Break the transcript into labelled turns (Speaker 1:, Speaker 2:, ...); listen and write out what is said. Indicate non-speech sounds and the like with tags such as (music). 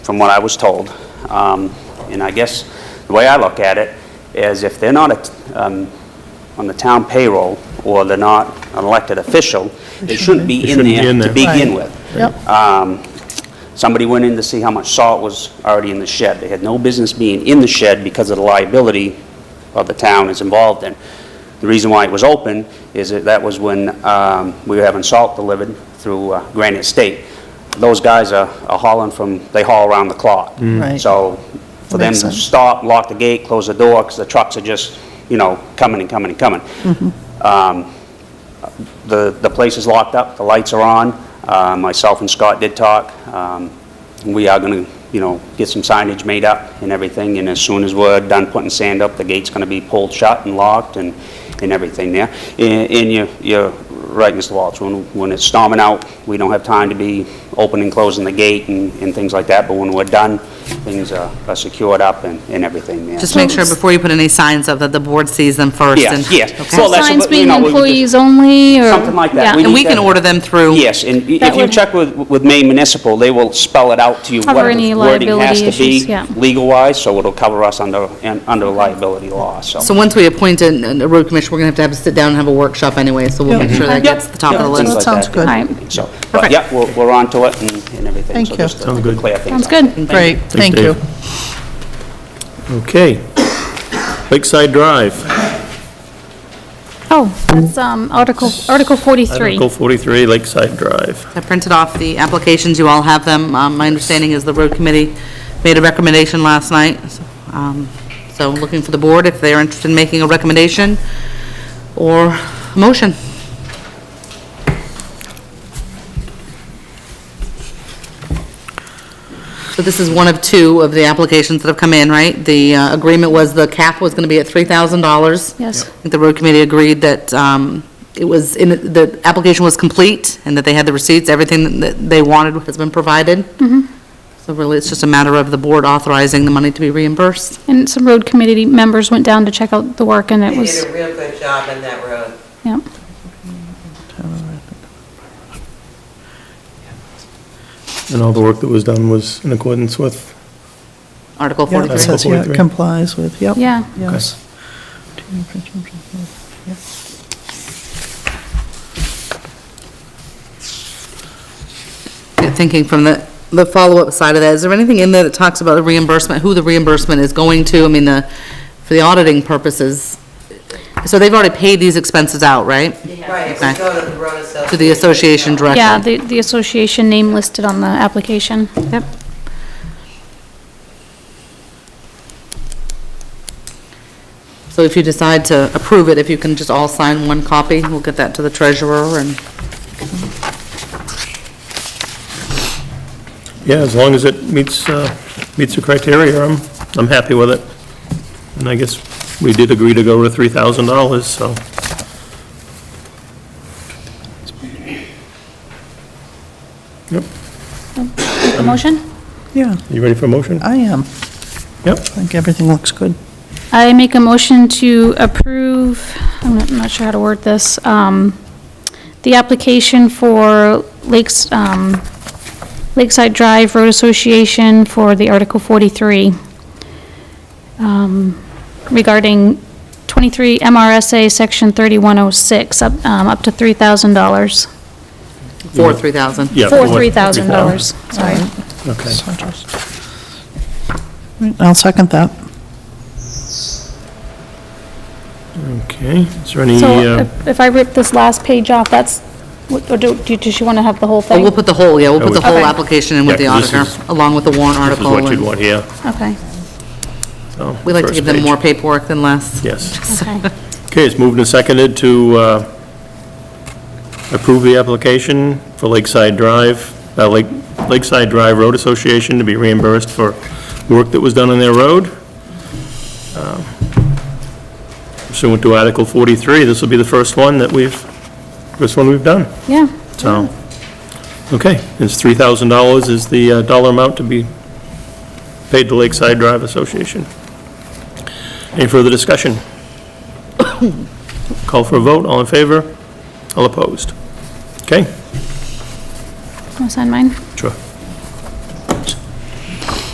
Speaker 1: from what I was told. Um, And I guess the way I look at it is if they're not a- um, on the town payroll or they're not an elected official, they shouldn't be in
Speaker 2: shouldn't be in
Speaker 1: there to
Speaker 2: there.
Speaker 1: begin
Speaker 3: Right.
Speaker 1: with.
Speaker 3: Yep.
Speaker 1: Um, Somebody went in to see how much salt was already in the shed. They had no business being in the shed because of the liability of the town is involved in. The reason why it was open is that that was when um, we were having salt delivered through uh, Granite State. Those guys are are hauling from, they haul around the clock.
Speaker 3: Right.
Speaker 1: So for them
Speaker 3: Makes
Speaker 1: to
Speaker 3: sense.
Speaker 1: stop, lock the gate, close the door, because the trucks are just, you know, coming and coming and coming. Um, the, the place is locked up, the lights are on. Uh, Myself and Scott did talk. Um, We are going to, you know, get some signage made up and everything, and as soon as we're done putting sand up, the gate's going to be pulled shut and locked and, and everything there. And and you're, you're right, Mr. Walsh, when, when it's storming out, we don't have time to be opening, closing the gate and, and things like that, but when we're done, things are are secured up and, and everything there.
Speaker 4: Just make sure before you put any signs up that the board sees them first.
Speaker 1: Yes,
Speaker 4: and-
Speaker 1: yes.
Speaker 4: Okay.
Speaker 1: So that's-
Speaker 5: Signs
Speaker 1: but, you
Speaker 5: being
Speaker 1: know, we would just-
Speaker 5: employees only, or?
Speaker 1: Something like that.
Speaker 5: Yeah.
Speaker 1: We
Speaker 4: And we
Speaker 1: need
Speaker 4: can
Speaker 1: that.
Speaker 4: order them through.
Speaker 1: Yes, and i-
Speaker 5: That
Speaker 1: if you
Speaker 5: would-
Speaker 1: check with, with Maine Municipal, they will spell it out to you what
Speaker 5: Cover
Speaker 1: the
Speaker 5: any
Speaker 1: wording has to
Speaker 5: liability
Speaker 1: be
Speaker 5: issues, yeah.
Speaker 1: legal-wise, so it'll cover us under, and- under liability law, so.
Speaker 4: So once we appoint a a road commissioner, we're going to have to have a sit down and have a workshop anyway, so we'll make sure that
Speaker 5: Mm-hmm.
Speaker 1: Yep,
Speaker 4: gets to the top of
Speaker 1: yep,
Speaker 4: the
Speaker 1: things like
Speaker 4: list.
Speaker 3: sounds
Speaker 1: that.
Speaker 3: good.
Speaker 5: All right.
Speaker 1: So, but
Speaker 4: Okay.
Speaker 1: yeah, we're, we're on to it and, and everything.
Speaker 3: Thank
Speaker 1: so
Speaker 3: you.
Speaker 1: just to
Speaker 2: Sounds good.
Speaker 1: Clear things
Speaker 5: Sounds
Speaker 1: up.
Speaker 5: good.
Speaker 3: Great, thank you.
Speaker 2: Dave. Okay. Lakeside Drive,
Speaker 5: Oh, that's um, Article, Article 43.
Speaker 2: Article 43, Lakeside Drive.
Speaker 4: I printed off the applications, you all have them. Um, My understanding is the road committee made a recommendation last night, Um, so I'm looking for the board if they're interested in making a recommendation or a motion. So this is one of two of the applications that have come in, right? The uh, agreement was the cap was going to be at $3,000.
Speaker 5: Yes.
Speaker 4: I think the road committee agreed that um, it was, in the application was complete, and that they had the receipts, everything that they wanted has been provided. So really, it's just a matter of the board authorizing the money to be reimbursed.
Speaker 5: And some road committee members went down to check out the work, and it
Speaker 6: They did
Speaker 5: was,
Speaker 6: a real good job in that road.
Speaker 5: yeah.
Speaker 2: And all the work that was done was in accordance with,
Speaker 4: Article
Speaker 3: Yeah, it
Speaker 4: 43.
Speaker 3: says, yeah, it
Speaker 2: 43.
Speaker 3: complies with, yep.
Speaker 5: Yeah.
Speaker 3: Yes.
Speaker 4: Thinking from the, the follow-up side of that, is there anything in there that talks about the reimbursement, who the reimbursement is going to? I mean, the, for the auditing purposes. So they've already paid these expenses out, right?
Speaker 6: Right, we go to the road association.
Speaker 4: To the association directly?
Speaker 5: Yeah, the, the association name listed on the application.
Speaker 4: Yep. So if you decide to approve it, if you can just all sign one copy, we'll get that to the treasurer and,
Speaker 2: yeah, as long as it meets, uh, meets the criteria, I'm, I'm happy with it. And I guess we did agree to go to $3,000, so. Yep,
Speaker 5: The motion?
Speaker 3: Yeah,
Speaker 2: you ready for a
Speaker 4: Uh,
Speaker 2: motion?
Speaker 3: I am.
Speaker 2: Yep.
Speaker 3: I think everything looks good.
Speaker 5: I make a motion to approve, I'm not- I'm not sure how to word this, um, the application for Lakes, um, Lakeside Drive Road Association for the Article 43 um, regarding 23 MRSA Section 3106, up um, up to $3,000.
Speaker 4: for 3,000.
Speaker 2: Yeah.
Speaker 5: For
Speaker 2: what-
Speaker 5: $3,000, sorry.
Speaker 2: Okay.
Speaker 3: Right, I'll second that.
Speaker 2: Okay, is there any,
Speaker 5: So
Speaker 2: uh,
Speaker 5: if- if I rip this last page off, that's, what- or do, do- does she want to have the whole
Speaker 4: But
Speaker 2: Oh,
Speaker 5: thing?
Speaker 4: we'll put the whole, yeah, we'll put the whole
Speaker 5: Okay.
Speaker 4: application in with the
Speaker 2: Yeah, 'cause this
Speaker 4: auditor,
Speaker 2: is-
Speaker 4: along with the warrant
Speaker 2: this is
Speaker 4: uh, article.
Speaker 2: what you'd
Speaker 4: and
Speaker 2: want here,
Speaker 5: Okay,
Speaker 2: so.
Speaker 4: We like to
Speaker 2: first
Speaker 4: give them
Speaker 2: page.
Speaker 4: more paperwork than less. (laughs)
Speaker 2: Yes.
Speaker 5: okay.
Speaker 2: Okay, it's moved and seconded to uh, approve the application for Lakeside Drive, uh, Lake Lakeside Drive Road Association to be reimbursed for the work that was done on their road. Um, Pursuant to Article 43, this will be the first one that we've, first one we've done,
Speaker 5: Yeah,
Speaker 2: so. Okay, it's $3,000 is the uh, dollar amount to be paid to Lakeside Drive Association. Any further discussion? (coughs) Call for a vote, all in favor, all opposed? Okay,
Speaker 5: I'll sign mine.
Speaker 2: sure.